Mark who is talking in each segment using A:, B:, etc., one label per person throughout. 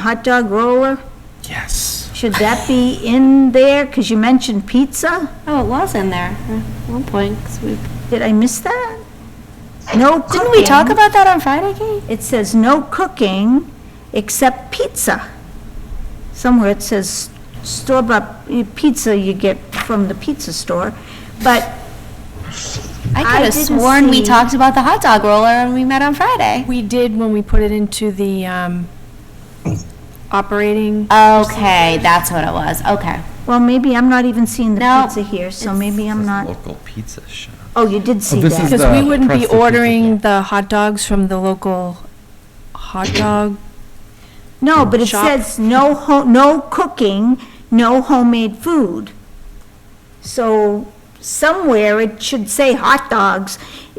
A: hot dog roller,
B: Yes.
A: should that be in there? Because you mentioned pizza.
C: Oh, it was in there at one point, 'cause we,
A: Did I miss that? No cooking.
C: didn't we talk about that on Friday, Kate?
A: It says no cooking except pizza. Somewhere it says store-bought pizza you get from the pizza store, but
C: I
A: I
C: could have
A: didn't
C: sworn we
A: see-
C: talked about the hot dog roller and we met on Friday.
D: We did when we put it into the um, operating.
C: Okay, that's what it was, okay.
A: Well, maybe I'm not even seeing the
C: No,
A: pizza here, so maybe I'm not,
B: Local pizza shop.
A: oh, you did see
E: this
A: that.
E: is-
D: Because we
E: the
D: wouldn't
E: press
D: be
E: the pizza
D: ordering
E: thing.
D: the hot dogs from the local hot dog.
A: No, but it
D: Shop.
A: says no ho, no cooking, no homemade food. So somewhere it should say hot dogs,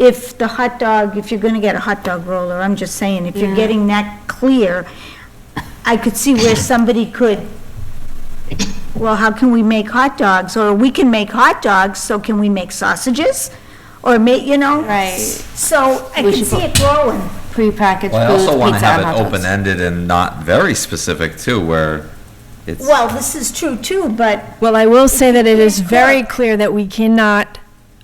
A: if the hot dog, if you're gonna get a hot dog roller, I'm just saying, if you're getting that clear, I could see where somebody could, well, how can we make hot dogs? Or we can make hot dogs, so can we make sausages? Or make, you know?
C: Right.
A: So I
C: We
A: can
C: should
A: see
C: put-
A: it growing.
C: Prepackaged
B: Well, I also
C: foods,
B: want to
C: pizza
B: have
C: and hot
B: it
C: dogs.
B: open-ended and not very specific too, where it's,
A: Well, this is true too, but
D: Well, I will say that it is very clear that we cannot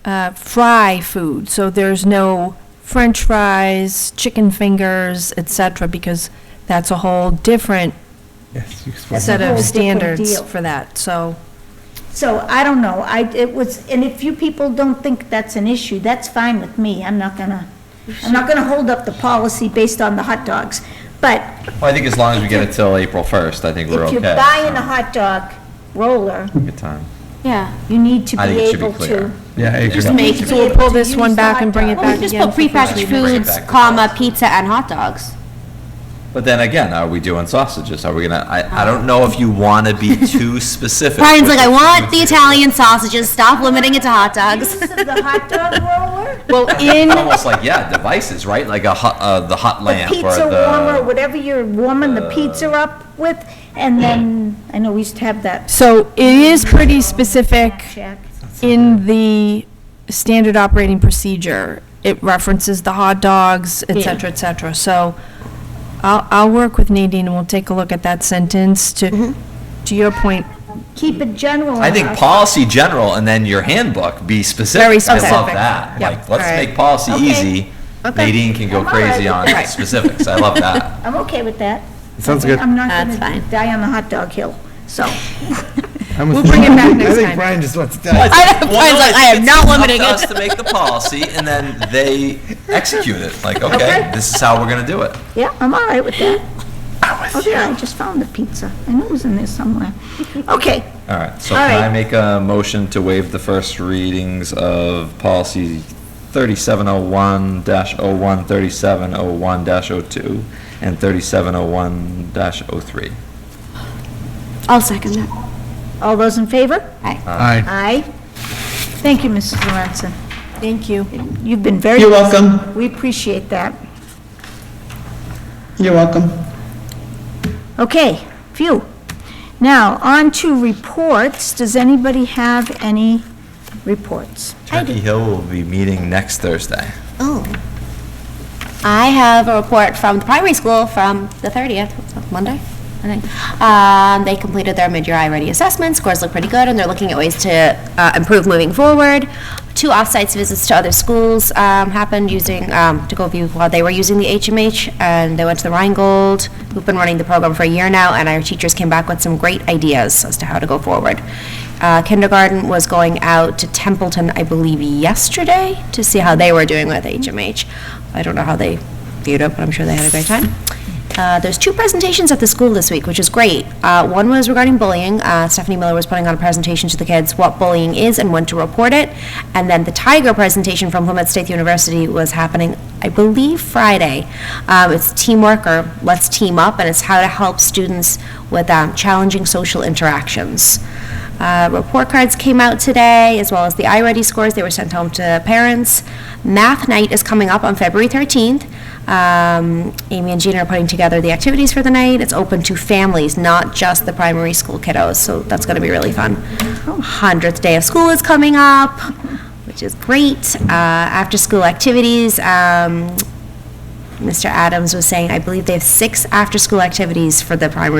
D: uh, fry food, so there's no french fries, chicken fingers, et cetera, because that's a whole different
E: Yes, you explained
D: set
A: whole
D: of
A: different
D: standards
A: deal.
D: for that, so.
A: So I don't know, I, it was, and if you people don't think that's an issue, that's fine with me, I'm not gonna, I'm not gonna hold up the policy based on the hot dogs. But
B: Well, I think as long as we get it till April 1st, I think we're
A: if
B: okay.
A: you're buying a
B: so,
A: hot dog roller,
B: Good time.
C: Yeah.
A: you need to be
B: I think it should be
A: able
B: clear.
A: to.
E: Yeah, I agree.
C: Just make,
A: to be
D: So we'll
A: able
D: pull
A: to
D: this
A: use
D: one
A: the
D: back
A: hot
D: and bring it
A: dog.
C: Well, we
D: back
C: just
B: Friday.
C: put
D: again for
C: prepackaged
B: Bring it
C: foods,
B: back to
C: comma,
B: us.
C: pizza and hot dogs.
B: But then again, are we doing sausages? Are we gonna, I, I don't know if you want to be too specific.
C: Brian's
B: with
C: like, I
B: the
C: want
B: food
C: the
B: here."
C: Italian sausages, stop limiting it to hot dogs.
A: Use of the hot dog roller,
D: Well, in,
B: Almost like, yeah, devices, right? Like a hot, uh, the hot
A: the
B: lamp or
A: pizza warmer,
B: the. Uh,
A: whatever you're warming the pizza up with, and then, I know we used to have that
D: so it is pretty specific
A: shack.
D: in the standard operating procedure. It references the hot dogs, et cetera, et cetera. So I'll, I'll work with Nadine and we'll take a look at that sentence to, to your point,
A: Keep it general.
B: I think
A: enough.
B: policy general and then your handbook, be specific.
D: Very
B: I love
D: specific.
B: that.
D: Yep.
B: Like, let's
D: All right.
B: make policy
A: Okay.
B: easy. Nadine can go
A: I'm all right
B: crazy
A: with
B: on
A: that.
B: specifics. I love that.
A: I'm okay with that.
E: Sounds good.
A: I'm not
C: That's
A: gonna
C: fine.
A: die on the hot dog hill, so.
E: We'll
D: bring it back next
E: I think
D: time.
E: Brian just wants to die.
B: Well, no, I was like, I am not limiting it. It's up to us to make the policy, and then they execute it. Like, okay,
A: Okay.
B: this is how we're gonna do it.
A: Yeah, I'm all right with that. Oh, yeah, I just found the pizza. I knew it was in there somewhere. Okay,
B: All right, so
A: All
B: can I
A: right.
B: make a motion to waive the first readings of policy thirty-seven oh one dash oh one, thirty-seven oh one dash oh two, and thirty-seven oh one dash oh three?
C: I'll second that.
A: all those in favor?
E: Aye.
A: Aye. Thank you, Mrs. Lorenzen.
D: thank you.
A: You've been very.
F: You're welcome.
A: We appreciate that.
F: You're welcome.
A: Okay, phew. Now, on to reports. Does anybody have any reports?
B: Turkey Hill will be meeting next Thursday.
C: Oh. I have a report from the primary school from the 30th, Monday, I think. Um, They completed their mid-year I-ready assessment, scores look pretty good, and they're looking at ways to uh, improve moving forward. Two off-site visits to other schools um, happened using, um, to go view while they were using the HMH, and they went to the Rheingold, who've been running the program for a year now, and our teachers came back with some great ideas as to how to go forward. Uh, Kindergarten was going out to Templeton, I believe, yesterday to see how they were doing with HMH. I don't know how they viewed it, but I'm sure they had a great time. Uh, there's two presentations at the school this week, which is great. Uh, one was regarding bullying. Uh, Stephanie Miller was putting on a presentation to the kids what bullying is and when to report it. And then the Tiger presentation from Plymouth State University was happening, I believe, Friday. Um, it's teamwork or let's team up, and it's how to help students with um, challenging social interactions. Uh, report cards came out today, as well as the iReady scores. They were sent home to parents. Math night is coming up on February 13th. Um, Amy and Gina are putting together the activities for the night. It's open to families, not just the primary school kiddos, so that's going to be really fun. 100th day of school is coming up, which is great. Uh, after school activities, um, Mr. Adams was saying, I believe they have six after-school activities for the primary